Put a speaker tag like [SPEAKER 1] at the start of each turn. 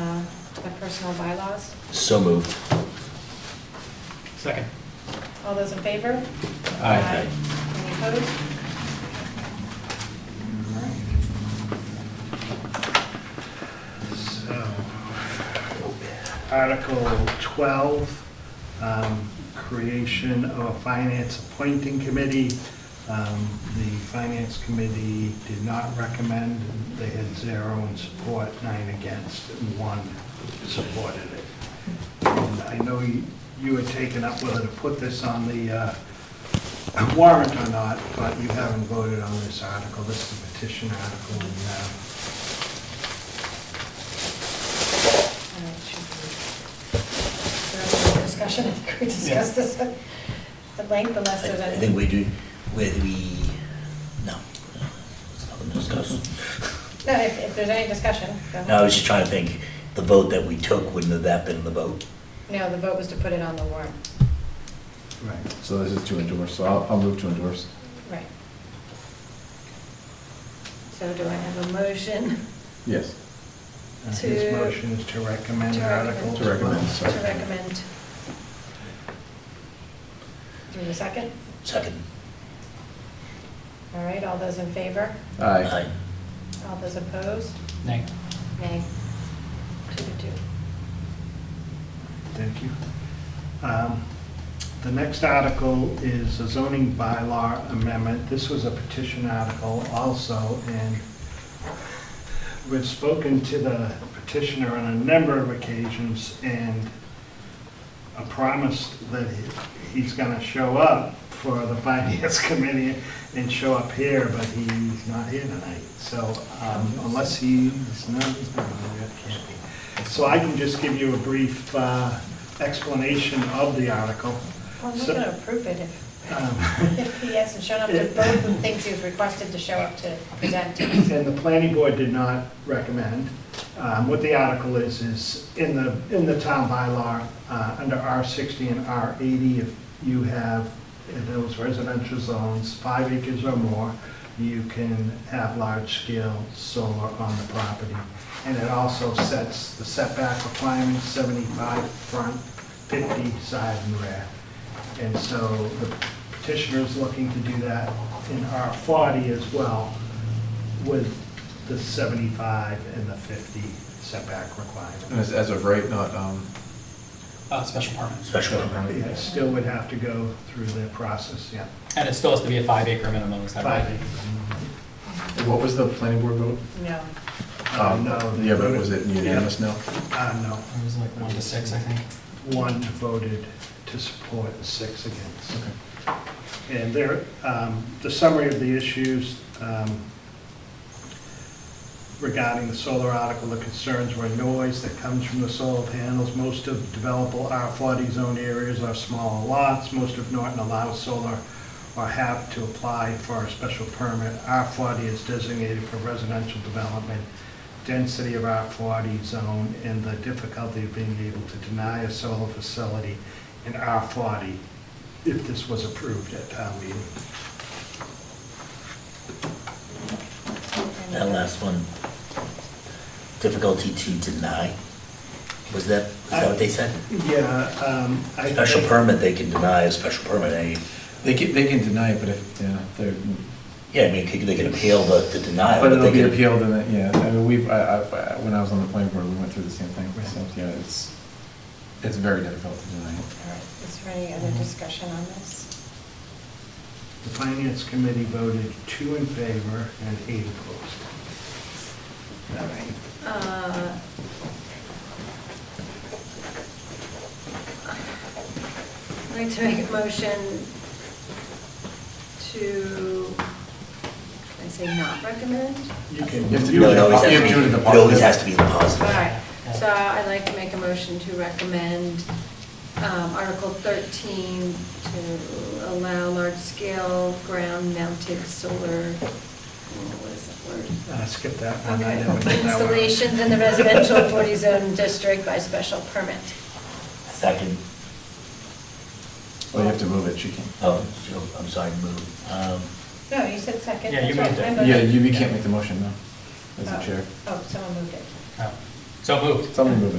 [SPEAKER 1] uh, personnel bylaws.
[SPEAKER 2] So moved.
[SPEAKER 3] Second.
[SPEAKER 1] All those in favor?
[SPEAKER 2] Aye.
[SPEAKER 1] Any opposed?
[SPEAKER 4] So, Oh. Article 12, um, creation of a finance appointing committee. Um, The finance committee did not recommend, they had zero in support, nine against, and one supported it. And I know you you had taken up whether to put this on the uh, warrant or not, but you haven't voted on this article, this is a petition article, and uh,
[SPEAKER 1] All right, should we- Is there any more discussion? I think we discussed this at length unless
[SPEAKER 2] I
[SPEAKER 1] there's
[SPEAKER 2] I
[SPEAKER 1] any.
[SPEAKER 2] think we do, we, we, no, it's not gonna discuss.
[SPEAKER 1] No, if, if there's any discussion. go
[SPEAKER 2] No, I
[SPEAKER 1] ahead.
[SPEAKER 2] was just trying to think, the vote that we took, wouldn't have that been the vote?
[SPEAKER 1] No, the vote was to put it on the warrant.
[SPEAKER 4] Right.
[SPEAKER 5] So this is to endorse, so I'll, I'll move to endorse.
[SPEAKER 1] Right. So do I have a motion
[SPEAKER 5] Yes.
[SPEAKER 4] And
[SPEAKER 1] To-
[SPEAKER 4] His motion is to recommend
[SPEAKER 1] to recommend.
[SPEAKER 4] Article
[SPEAKER 5] To recommend,
[SPEAKER 4] 12.
[SPEAKER 1] to
[SPEAKER 5] sorry.
[SPEAKER 1] recommend? Do we have a second?
[SPEAKER 2] Second.
[SPEAKER 1] All right, all those in favor?
[SPEAKER 5] Aye.
[SPEAKER 1] All those opposed?
[SPEAKER 3] Nay.
[SPEAKER 1] Nay. Two to two.
[SPEAKER 4] Thank you. Um, The next article is a zoning bylaw amendment. This was a petition article also, and we've spoken to the petitioner on a number of occasions and a promise that he- he's going to show up for the finance committee and show up here, but he's not here tonight. So um, unless he's, no, he's not, he can't be. So I can just give you a brief uh, explanation of the article.
[SPEAKER 1] Well, we're
[SPEAKER 4] So-
[SPEAKER 1] going to approve it if,
[SPEAKER 4] Um,
[SPEAKER 1] if he hasn't shown up to both the things he was requested to show up to present to us.
[SPEAKER 4] And the planning board did not recommend. Um, What the article is, is in the, in the town bylaw, uh, under R60 and R80, if you have in those residential zones, five acres or more, you can have large-scale solar on the property. And it also sets the setback requirements, 75 front, 50 side and rear. And so the petitioner's looking to do that in R40 as well with the 75 and the 50 setback
[SPEAKER 5] And as,
[SPEAKER 4] requirement.
[SPEAKER 5] as of right, not, um,
[SPEAKER 3] Uh, special permit.
[SPEAKER 2] Special permit.
[SPEAKER 4] Yeah, it still would have to go through the process, yeah.
[SPEAKER 3] And it still has to be a five acre minimum, is that
[SPEAKER 4] Five
[SPEAKER 3] right?
[SPEAKER 4] acres.
[SPEAKER 5] what was the planning board vote? Um,
[SPEAKER 1] No.
[SPEAKER 4] Uh, no, they
[SPEAKER 5] Yeah, but
[SPEAKER 4] voted-
[SPEAKER 5] was it unanimous now?
[SPEAKER 4] Uh,
[SPEAKER 3] It was like one to six, I think.
[SPEAKER 4] no, one voted to support, six against. And there, um, the summary of the issues um, regarding the solar article, the concerns were noise that comes from the solar panels. Most of developable R40 zone areas are smaller lots. Most of Norton allows solar or have to apply for a special permit. R40 is designated for residential development. Density of R40 zone and the difficulty of being able to deny a solar facility in R40 if this was approved at town meeting.
[SPEAKER 1] And,
[SPEAKER 2] That last one, difficulty to deny, was that, was that what they said?
[SPEAKER 4] Yeah, um, I.
[SPEAKER 2] Special
[SPEAKER 4] I-
[SPEAKER 2] permit, they can deny a special permit, any,
[SPEAKER 5] They can, they can deny it, but if, yeah, they're,
[SPEAKER 2] yeah, I mean, they can- they can appeal the, the denial.
[SPEAKER 5] but it'll
[SPEAKER 2] they
[SPEAKER 5] be
[SPEAKER 2] can-
[SPEAKER 5] appealed and, then- yeah, I mean, we've, I, I, when I was on the planning board, we went through the same thing, so, yeah, it's, it's very difficult to deny it.
[SPEAKER 1] All right, is there any other discussion on this?
[SPEAKER 4] The finance committee voted two in favor and eight opposed.
[SPEAKER 1] All right. Uh, I'd like to make a motion to, can I say not recommend?
[SPEAKER 4] You can,
[SPEAKER 5] You have to do
[SPEAKER 2] No, it always has
[SPEAKER 5] You
[SPEAKER 2] to
[SPEAKER 5] have
[SPEAKER 2] be-
[SPEAKER 5] to do it in the
[SPEAKER 2] It always
[SPEAKER 5] positive.
[SPEAKER 2] has to be the
[SPEAKER 1] All
[SPEAKER 2] positive.
[SPEAKER 1] right, so I'd like to make a motion to recommend um, Article 13 to allow large-scale ground-mounted solar, what is that word?
[SPEAKER 4] uh, skip that one. I
[SPEAKER 1] Okay.
[SPEAKER 4] never did that one.
[SPEAKER 1] Installations in the residential 40 zone district by special permit.
[SPEAKER 2] Second,
[SPEAKER 5] Well, you have to move it, she can't.
[SPEAKER 2] oh, so, I'm sorry, move. Um,
[SPEAKER 1] No, you said second.
[SPEAKER 3] Yeah, you
[SPEAKER 1] That's
[SPEAKER 3] moved
[SPEAKER 1] right,
[SPEAKER 3] it.
[SPEAKER 1] my vote.
[SPEAKER 5] Yeah, you, you can't make the motion, no, as
[SPEAKER 1] Oh.
[SPEAKER 5] the chair.
[SPEAKER 1] Oh, someone moved it.
[SPEAKER 3] Oh. So moved.
[SPEAKER 5] Someone move it.